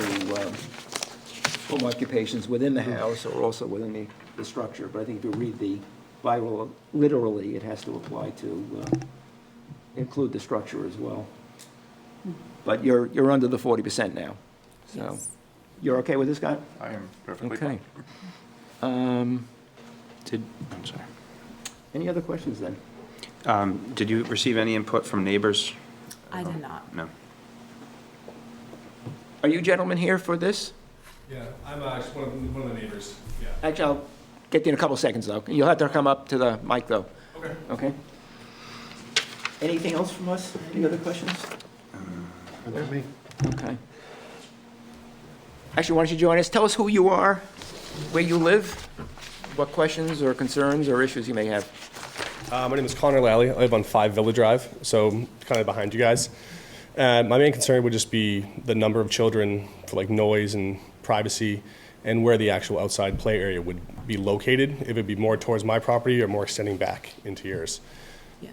to um, home occupations within the house or also within the, the structure. But I think if you read the bylaw literally, it has to apply to uh, include the structure as well. But you're, you're under the forty percent now, so. You're okay with this, Scott? I am perfectly Okay. fine. Um, Did, I'm sorry. Any other questions then? Um, Did you receive any input from neighbors? I Oh, did not. No. Um, Are you gentlemen here for this? Yeah, I'm uh, just one of, the- one of the neighbors, yeah. Actually, I'll get you in a couple seconds, though. You'll have to come up to the mic, though. Okay. Okay? Anything else from us? Any other questions? Okay. Actually, why don't you join us? Tell us who you are, where you live, what questions or concerns or issues you may have. Uh, my name is Connor Lally. I live on Five Villa Drive, so kind of behind you guys. Uh, my main concern would just be the number of children for like noise and privacy, and where the actual outside play area would be located. If it'd be more towards my property or more extending back into yours. Yeah.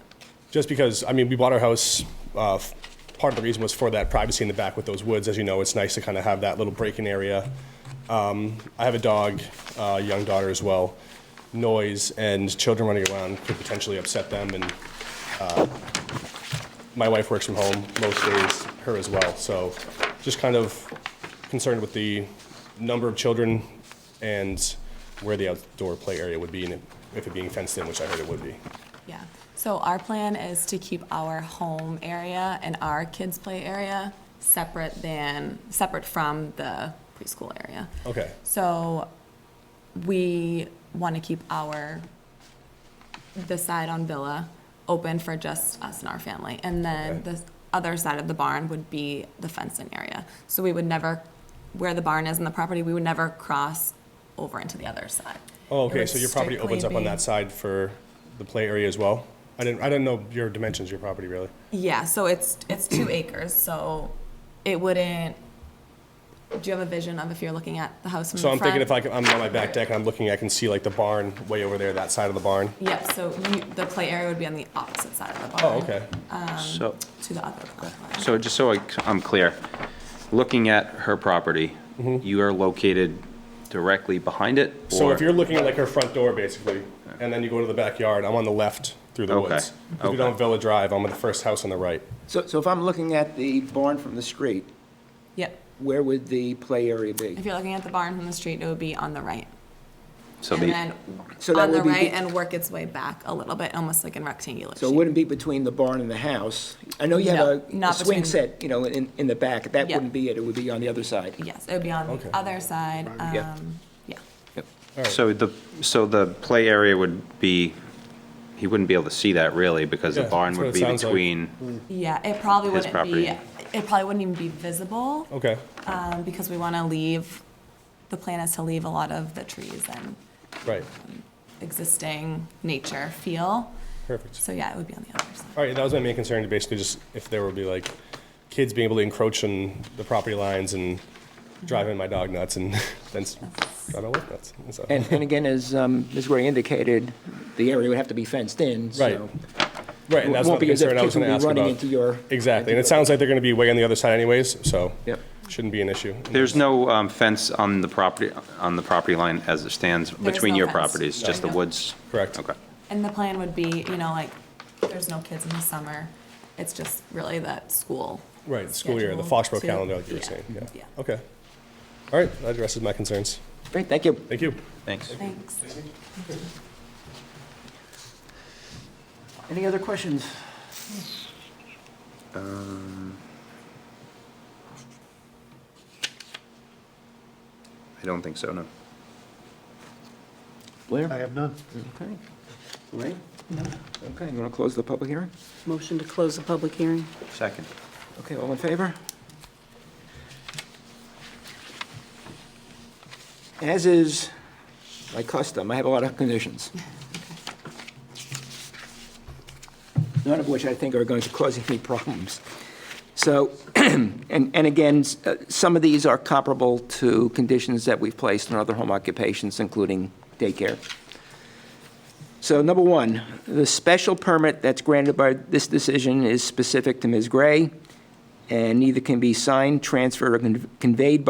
Just because, I mean, we bought our house, uh, f- part of the reason was for that privacy in the back with those woods. As you know, it's nice to kind of have that little break-in area. Um, I have a dog, uh, young daughter as well. Noise and children running around could potentially upset them and, uh, my wife works from home most days, her as well. So just kind of concerned with the number of children and where the outdoor play area would be and if it being fenced in, which I heard it would be. Yeah. So our plan is to keep our home area and our kids' play area separate than, separate from the preschool area. Okay. So we want to keep our, the side on Villa open for just us and our family. And then Okay. the other side of the barn would be the fenced-in area. So we would never, where the barn is in the property, we would never cross over into the other side. Oh, It okay, would so your property opens up strictly on be- that side for the play area as well? I didn't, I didn't know your dimensions of your property, really. Yeah, so it's, it's two acres, so it wouldn't, do you have a vision of if you're looking at the house from the So I'm front? thinking if I can, I'm on my back deck and I'm looking, I can see like the barn way over there, that side of the barn. Yep, so you, the play area would be on the opposite side of the barn. Oh, okay. So, To the other platform. so just so I, am clear, looking at her property, you are located directly behind it? Mm-hmm. So or- if you're looking at like her front door, basically, and then you go to the backyard, I'm on the left through the Okay, woods. If okay. you don't Villa Drive, I'm on the first house on the right. So, so if I'm looking at the barn from the street, Yep, where would the play area be? if you're looking at the barn from the street, it would be on the right. So And the- then So that on the would be right the- and work its way back a little bit, almost like in rectangular So it shape. wouldn't be between the barn and the house? I know you No, have a- a not swing between- set, you know, in, in the back. That Yeah. wouldn't be it. It would be on the other side. Yes, it would be on Okay. the other side, Yeah. um, yeah. So the, so the play area would be, he wouldn't be able to see that really because the Yeah, barn that's would what be it sounds like. Mm-hmm. between, Yeah, it probably His wouldn't be, property. it probably wouldn't even be visible. Okay, um, because we want to leave, the plan is to leave a lot of the trees and right, existing nature feel. perfect. So yeah, it would be on the other side. All right, that was my main concern, basically just if there would be like kids being able to encroach on the property lines and driving my dog nuts and then s- drive my wife nuts. so. And, and again, as um, Ms. Gray indicated, the area would have to be fenced in, so. Right. Right, It and that's won't not the be as if concern I was kids will gonna be ask running about. into your- Exactly, and it sounds like they're gonna be way on the other side anyways, so. Yep. Shouldn't be an issue. there's no um, fence on the property, on the property line as it stands is between no your fence. properties, just the No. woods? Correct. Okay. And the plan would be, you know, like, there's no kids in the summer. It's just really that school. Right, school year, the schedule Foxborough to- calendar, like you were yeah, saying, yeah. Yeah, Okay. All right, that addresses my concerns. Great, thank you. Thank you. Thanks. thanks. Any other questions? Um, I don't think so, no. Blair? I have none. Okay. Ray? No. Okay, you want to close the public hearing? Motion to close the public hearing. Second. Okay, all in favor? As is my custom, I have a lot of conditions. None of which I think are going to cause any problems. So, and, and again, s- uh, some of these are comparable to conditions that we've placed in other home occupations, including daycare. So number one, the special permit that's granted by this decision is specific to Ms. Gray, and neither can be signed, transferred, or con- conveyed by.